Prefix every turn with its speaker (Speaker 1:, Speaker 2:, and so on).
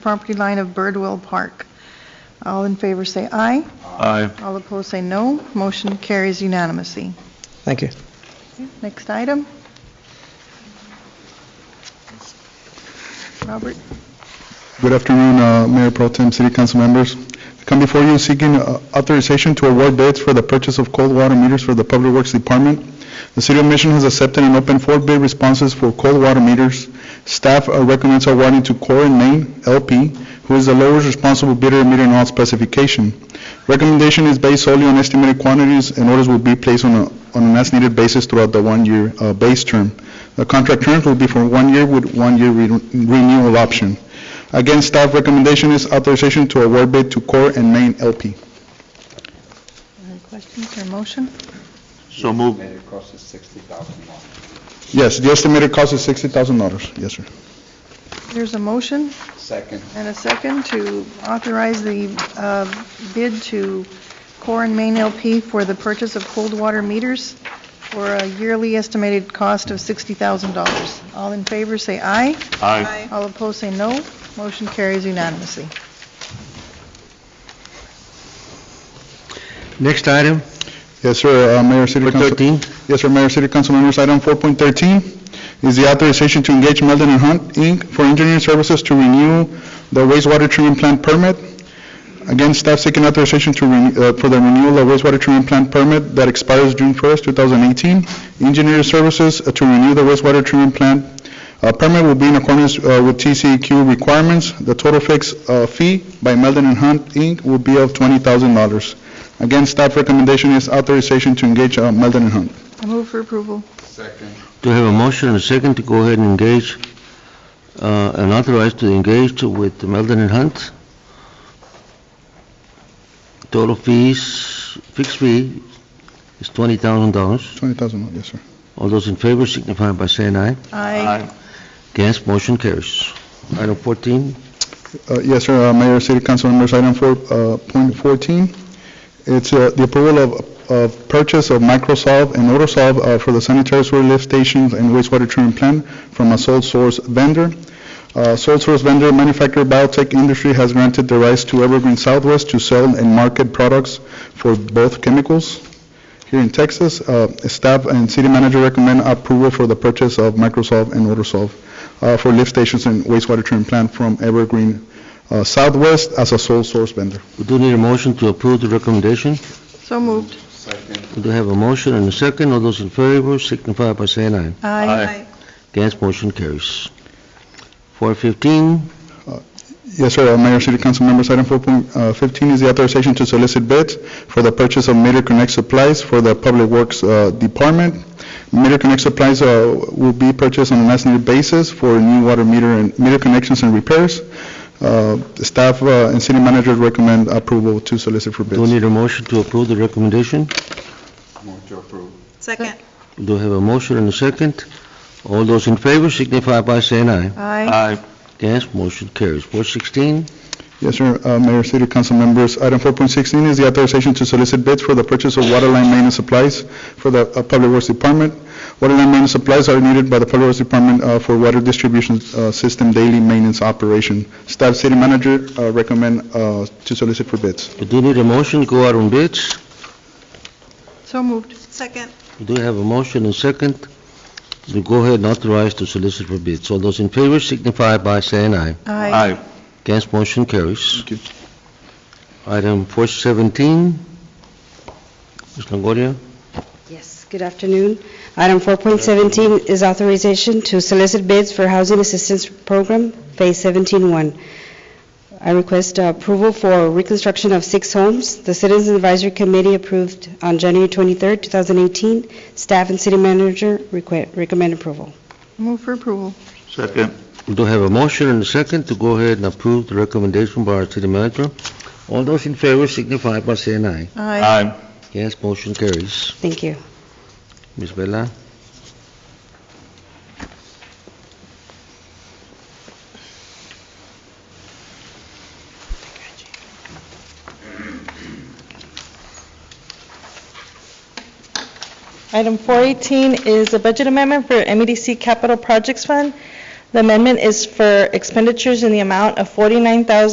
Speaker 1: property line of Birdwell Park. All in favor say aye.
Speaker 2: Aye.
Speaker 1: All opposed say no. Motion carries unanimously.
Speaker 3: Thank you.
Speaker 1: Next item. Robert?
Speaker 4: Good afternoon, uh, Mayor Pro Tem, City Council members. I Come before you seeking uh, authorization to award bids for the purchase of cold water meters for the Public Works Department. The City of Mission has accepted and opened four bid responses for cold water meters. Staff uh, recommends awarding to Core and Main LP, who is the lowest responsible bidder meeting all specification. Recommendation is based solely on estimated quantities, and orders will be placed on a- on an as-needed basis throughout the one-year uh, base term. The contract terms will be for one year with one-year re- renewal option. Again, staff recommendation is authorization to award bid to Core and Main LP.
Speaker 1: Any questions or motion?
Speaker 2: So moved.
Speaker 5: Estimated cost is $60,000.
Speaker 4: Yes, the estimated cost is $60,000. Yes, sir.
Speaker 1: There's a motion
Speaker 5: Second,
Speaker 1: and a second to authorize the uh, bid to Core and Main LP for the purchase of cold water meters for a yearly estimated cost of $60,000. All in favor say aye.
Speaker 2: Aye.
Speaker 1: All opposed say no. Motion carries unanimously.
Speaker 3: Next item,
Speaker 4: Yes, sir, uh, Mayor, City
Speaker 3: number
Speaker 4: Council.
Speaker 3: 13.
Speaker 4: Yes, sir, Mayor, City Council members, item 4.13 is the authorization to engage Meldon and Hunt, Inc. for engineering services to renew the wastewater treatment plant permit. Again, staff seeking authorization to, ren- uh, for the renewal of wastewater treatment plant permit that expires June 1st, 2018. Engineering services uh, to renew the wastewater treatment plant uh, permit will be in accordance uh, with TCEQ requirements. The total fixed uh, fee by Meldon and Hunt, Inc. will be of $20,000. Again, staff recommendation is authorization to engage uh, Meldon and Hunt.
Speaker 1: I move for approval.
Speaker 5: second,
Speaker 6: Do we have a motion and a second to go ahead and engage, uh, and authorize to engage with Meldon and Hunt? Total fees, fixed fee is $20,000.
Speaker 4: $20,000, yes, sir.
Speaker 6: All those in favor signify by saying aye.
Speaker 1: Aye.
Speaker 6: Against, motion carries. Item 14,
Speaker 4: Uh, Yes, sir, Uh, Mayor, City Council members, item four, uh, point 14, it's uh, the approval of, of purchase of Microsolve and Otosolve uh, for the sanitary sewer lift stations and wastewater treatment plant from a sole source vendor. Uh, Sole source vendor manufacturer Biotech Industry has granted the rights to Evergreen Southwest to sell and market products for both chemicals here in Texas. Uh, Staff and city manager recommend approval for the purchase of Microsolve and Otosolve uh, for lift stations and wastewater treatment plant from Evergreen uh, Southwest as a sole source vendor.
Speaker 6: we do need a motion to approve the recommendation.
Speaker 1: So moved.
Speaker 5: second,
Speaker 6: We do have a motion and a second. All those in favor signify by saying aye.
Speaker 2: Aye.
Speaker 6: Against, motion carries. 415,
Speaker 4: Yes, sir, Uh, Mayor, City Council members, item 4.15 is the authorization to solicit bids for the purchase of Meter Connect supplies for the Public Works uh, Department. Meter Connect supplies uh, will be purchased on an as-needed basis for new water meter and meter connections and repairs. Uh, Staff uh, and city managers recommend approval to solicit for
Speaker 6: do we
Speaker 4: bids.
Speaker 6: need a motion to approve the recommendation.
Speaker 5: move to approve.
Speaker 7: Second.
Speaker 6: We do have a motion and a second. All those in favor signify by saying aye.
Speaker 1: Aye.
Speaker 2: Aye.
Speaker 6: Against, motion carries. 416,
Speaker 4: Yes, sir, Uh, Mayor, City Council members, item 4.16 is the authorization to solicit bids for the purchase of water line maintenance supplies for the uh, Public Works Department. Water line maintenance supplies are needed by the Public Works Department uh, for water distribution uh, system daily maintenance operation. Staff City Manager uh, recommend uh, to solicit for bids.
Speaker 6: we do need a motion to go out on bids.
Speaker 1: So moved.
Speaker 7: Second.
Speaker 6: We do have a motion and second to go ahead and authorize to solicit for bids. All those in favor signify by saying aye.
Speaker 2: Aye.
Speaker 6: Against, motion carries.
Speaker 4: Thank you.
Speaker 6: Item 417, Ms. Longoria.
Speaker 8: Yes, good afternoon. Item 4.17 is authorization to solicit bids for Housing Assistance Program, Phase 17-1. I request uh, approval for reconstruction of six homes. The Citizens Advisory Committee approved on January 23, 2018. Staff and city manager requ- recommend approval.
Speaker 1: Move for approval.
Speaker 2: Second.
Speaker 6: We do have a motion and a second to go ahead and approve the recommendation by our city manager. All those in favor signify by saying aye.
Speaker 2: Aye.
Speaker 6: Against, motion carries.
Speaker 8: Thank you.
Speaker 6: Ms. Bella?
Speaker 7: E Item 418 is a budget amendment for MEDC Capital Projects Fund. The amendment is for expenditures in the amount of forty-nine thousand.